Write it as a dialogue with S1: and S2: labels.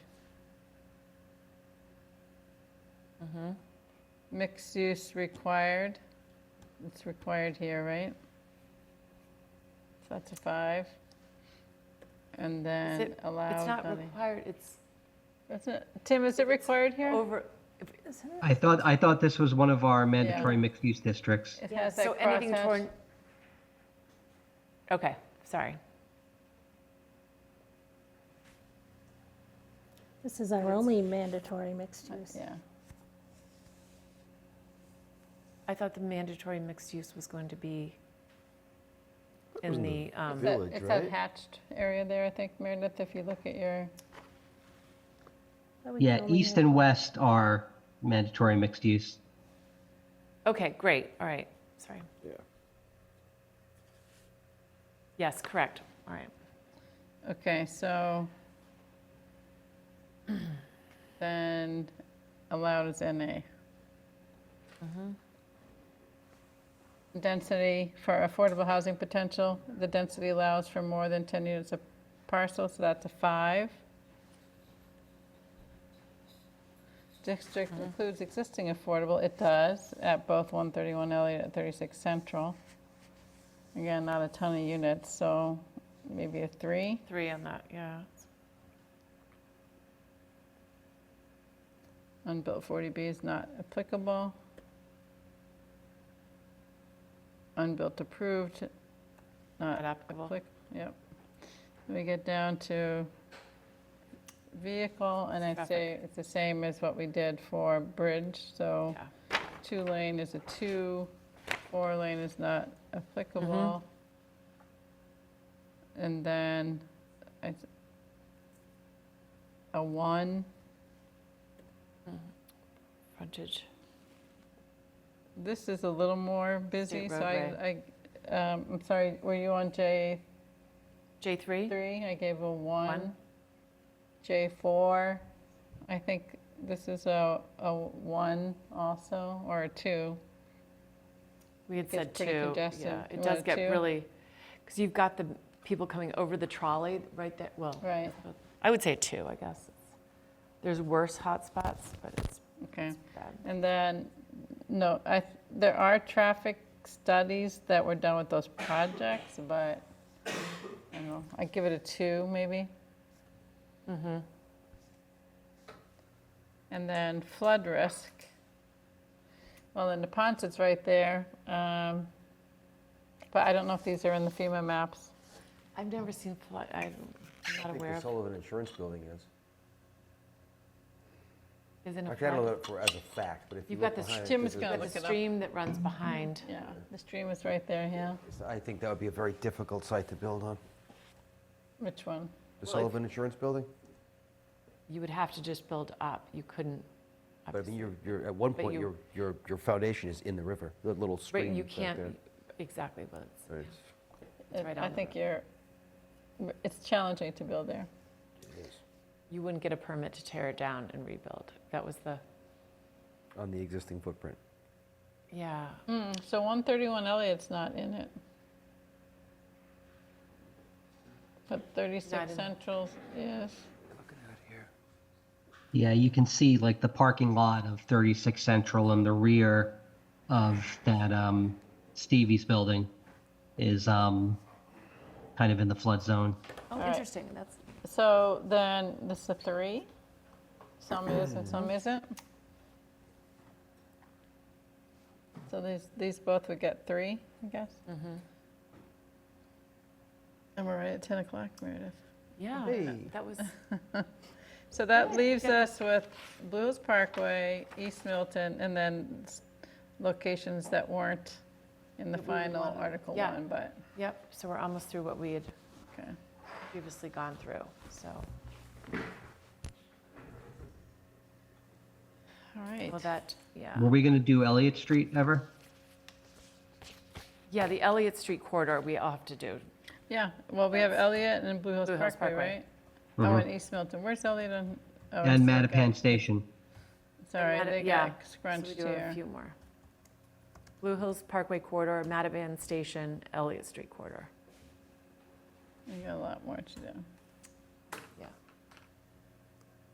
S1: Mixed use required. It's required here, right? So that's a five. And then
S2: it- It's
S1: allowed.
S2: not
S1: on the-
S2: required, it's
S1: That's it. Tim, is it required here?
S2: over, if- isn't it?
S3: I thought, I thought this was one of our mandatory mixed-use districts.
S1: It
S2: Yeah,
S1: has that
S2: so anything
S1: crosshatch.
S2: toward. Okay, sorry.
S4: This is our only mandatory mixed use.
S1: uh, Yeah.
S2: I thought the mandatory mixed use was going to be
S5: was
S2: in
S5: in
S2: the, um,
S5: Village,
S1: It's that
S5: right?
S1: hatched area there, I think, Meredith, if you look at your,
S4: But we
S3: Yeah,
S4: can only
S3: east
S4: have-
S3: and west are mandatory mixed-use.
S2: okay, great, all right, sorry.
S5: Yeah.
S2: Yes, correct, all right.
S1: okay, so then allowed is NA. Density for affordable housing potential, the density allows for more than 10 units a parcel, so that's a five. District includes existing affordable, it does, at both 131 Elliott and 36 Central. Again, not a ton of units, so maybe a three.
S2: Three on that, yeah.
S1: Unbuilt 40B is not applicable. Unbuilt approved,
S2: Not
S1: not
S2: applicable.
S1: applicable. Yep. We get down to vehicle, and I'd say it's the same as what we did for bridge, so two lane is a two, four lane is not applicable. And then I th- a one.
S2: Frontage.
S1: This is a little more busy, so I, I, um, I'm sorry, were you on J3?
S2: J3?
S1: I gave a one. J4, I think this is a, a one also, or a two.
S2: We
S1: Gets
S2: had said
S1: pretty
S2: two.
S1: congested.
S2: Yeah,
S1: You
S2: it
S1: want
S2: does
S1: a
S2: get
S1: two?
S2: really, because you've got the people coming over the trolley right there, well.
S1: Right.
S2: I would say two, I guess. There's worse hotspots, but it's
S1: Okay.
S2: bad.
S1: And then, no, I, th- there are traffic studies that were done with those projects, but I don't know, I'd give it a two, maybe.
S2: Mm-hmm.
S1: And then flood risk. Well, then the Napontet's right there, um, but I don't know if these are in the FEMA maps.
S2: I've never seen flood, I'm
S5: I
S2: not
S5: think
S2: aware
S5: the
S2: of,
S5: Sullivan Insurance Building is.
S2: isn't a
S5: Actually, I don't know
S2: flood.
S5: that for, as a fact, but if you
S2: You've got
S5: look
S2: this-
S5: behind. it,
S1: Jim is
S5: there's a-
S1: gonna
S2: The
S1: look it up.
S2: stream that runs behind.
S1: Yeah, the stream is right there, yeah.
S5: it's- I think that would be a very difficult site to build on.
S1: Which one?
S5: The
S2: if-
S5: Sullivan Insurance Building?
S2: You would have to just build up, you couldn't.
S5: But I mean, you're, you're, at one
S2: But
S5: point,
S2: you-
S5: your, your, your foundation is in the river, the little
S2: Right,
S5: stream.
S2: you
S5: back
S2: can't,
S5: there.
S2: exactly, but it's-
S5: So it's-
S2: It's right
S1: I
S2: on the
S1: think you're, it's challenging to build there.
S5: it is.
S2: you wouldn't get a permit to tear it down and rebuild. That was the,
S5: On the existing footprint.
S2: yeah,
S1: Hmm, So 131 Elliott's not in it. But
S2: Not
S1: 36
S2: in-
S1: Central is.
S3: Yeah, you can see like the parking lot of 36 Central and the rear of that um, Stevie's building is um, kind of in the flood zone.
S2: oh,
S1: right.
S2: interesting, that's,
S1: So then this is a three. Some is and some isn't. So these, these both would get three, I guess.
S2: Mm-hmm.
S1: And we're right at 10 o'clock, Meredith.
S2: yeah,
S5: Hey.
S2: that- that was,
S1: So that leaves us with Blues Parkway, East Milton, and then s- locations that weren't in the final Article
S2: Yeah.
S1: 1, but,
S2: yep, so we're almost through what we had
S1: okay.
S2: previously gone through, so.
S1: All right.
S2: Well, that, yeah.
S3: Were we going to do Elliott Street ever?
S2: Yeah, the Elliott Street corridor, we all have to do.
S1: Yeah, well, we have Elliott and Blue Hills
S2: Blue Hills
S1: Parkway,
S2: Parkway.
S1: right? Oh, and East Milton. Where's Elliott and? oh,
S3: Mm-hmm. And
S1: it's okay.
S3: Mattapan Station.
S1: Sorry,
S2: Matta-
S1: they
S2: yeah.
S1: got
S2: so
S1: scrunched
S2: we do have
S1: here.
S2: a few more. Blue Hills Parkway corridor, Mattapan Station, Elliott Street corridor.
S1: We got a lot more to do.